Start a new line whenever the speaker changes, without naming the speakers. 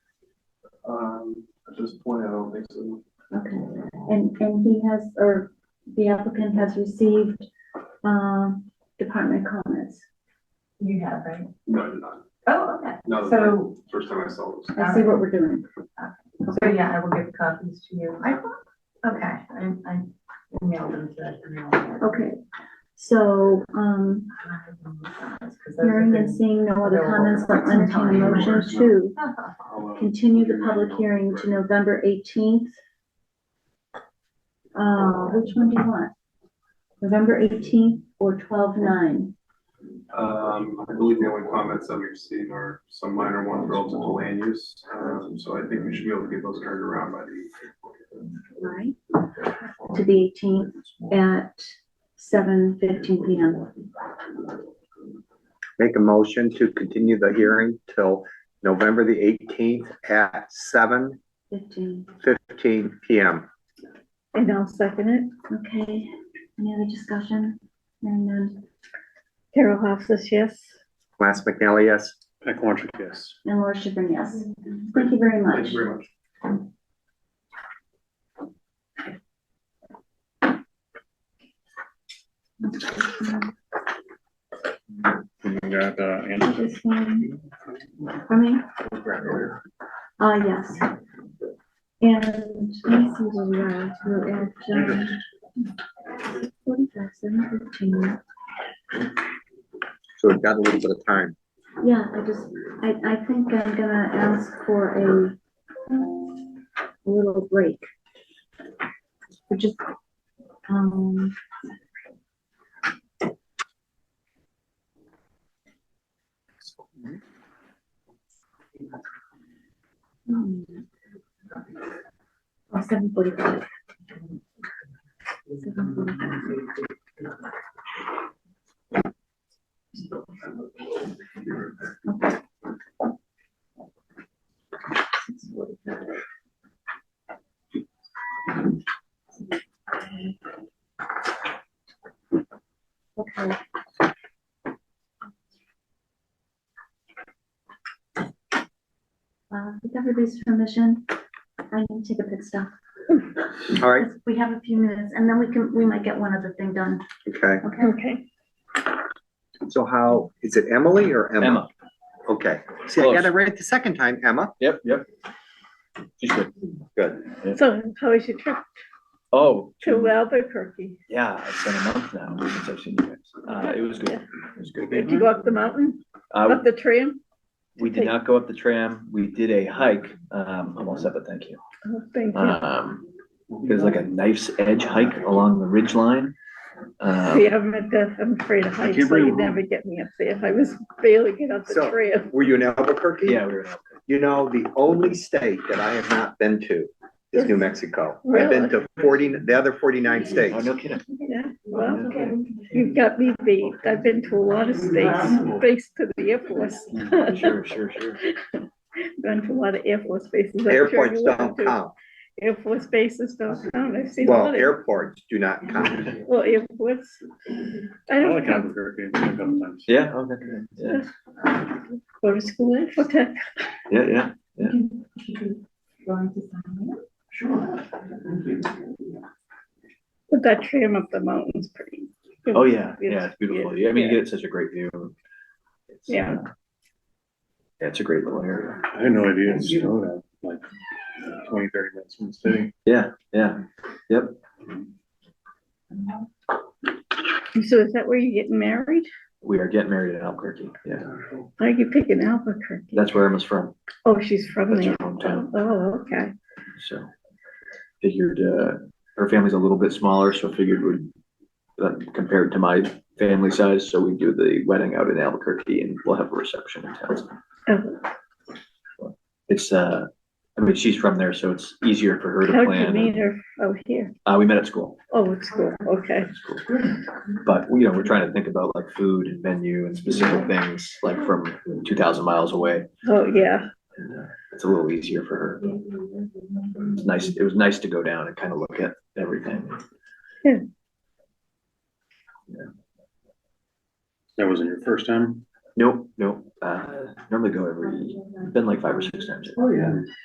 Um, at this point, I don't think so.
Okay, and, and he has, or the applicant has received, um, department comments.
You have, right?
No, I did not.
Oh, okay.
No,
So,
First time I saw this.
I see what we're doing.
so yeah, I will give copies to you. I, okay, I, I emailed them to that email.
Okay, so, um,
Because those
hearing
have
and
been-
seeing no other comments, I'll entertain a motion to continue the public hearing to November eighteenth. Uh, which one do you want? November eighteenth or twelve nine?
Um, I believe the only comments that we've seen are some minor ones relative to land use. Um, so I think we should be able to get those turned around by the.
Right. To the eighteenth at seven fifteen P M.
Make a motion to continue the hearing till November the eighteenth at seven
Fifteen.
fifteen PM.
And I'll second it. Okay, any other discussion? Hearing none. Carol Hofstas, yes.
Lance McNally, yes?
And Laura Schiffern, yes. Thank you very much.
Thank you very much.
Got, uh, Andrew?
This one. For me? Uh, yes. And let's see where we are, we're at, um, 45,715.
So we've got a little bit of time.
Yeah, I just, I, I think I'm gonna ask for a little break. We're just, um. Oh, Seven forty-five. Seven forty-five. Okay. Uh, with everybody's permission, I can take a pit stop.
All right,
We have a few minutes and then we can, we might get one other thing done,
okay.
okay?
Okay,
So how, is it Emily or Emma?
Emma.
Okay. See, I
Close.
got it right the second time, Emma.
Yep, yep. She's good. Good.
so how was your trip
Oh,
Mm-hmm.
to Albuquerque?
yeah, it's been a month now since I've seen you guys. Uh, it was good. It was
Did
good.
you go
Mm-hmm.
up the mountain,
Uh,
up the tram?
we did not go up the tram. We did a hike. Um, almost up, but thank you.
Oh, Thank you.
Uh,
Um, it was like a knife's edge hike along the ridge line. Um,
uh,
See, I'm at the, I'm afraid of heights, so you'd never get me up there. I was barely get up the
So-
tram.
Were you in Albuquerque?
yeah, we were,
You know, the only state that I have not been to is New Mexico. I've been to forty, the other forty-nine
oh,
states.
no kidding.
Yeah, well, you've got me beat. I've been to a lot of states, based to the Air Force.
Sure, sure, sure.
Been to a lot of Air Force bases. I'm sure
Airports
you went
don't
to.
count.
Air Force bases don't count. I've seen a
Well,
lot of,
airports do not count.
well, airports. I
I
don't
like Albuquerque a couple times.
Yeah, oh, that's good. Yeah,
go to school in Forte.
yeah, yeah.
Going to sign it?
But that tram up the mountain's pretty.
Oh, yeah,
Beautiful.
yeah, it's beautiful. Yeah, I mean, you get such a great view. It's,
Yeah.
uh, Yeah, it's a great little area.
I had no idea it snowed out like twenty, thirty minutes from the city.
Yeah, yeah, yep.
So is that where you're getting married?
We are getting married in Albuquerque. Yeah,
Why are you picking Albuquerque?
that's where Emma's from.
Oh, she's from
That's
there.
her hometown.
Oh, okay.
So figured, uh, her family's a little bit smaller, so figured would compare it to my family size. So we do the wedding out in Albuquerque and we'll have a reception in Townsend.
Oh,
It's, uh, I mean, she's from there, so it's easier for her to
How'd you meet
plan.
her? Oh, here.
Uh, we met at school.
Oh, it's cool. Okay.
It's cool. But, you know, we're trying to think about like food and menu and specific things like from two thousand miles away.
Oh, yeah.
And, uh, It's a little easier for her. It's nice, it was nice to go down and kind of look at everything.
That wasn't your first time?
Nope, nope, uh, normally go every, been like five or six times.
Oh, yeah.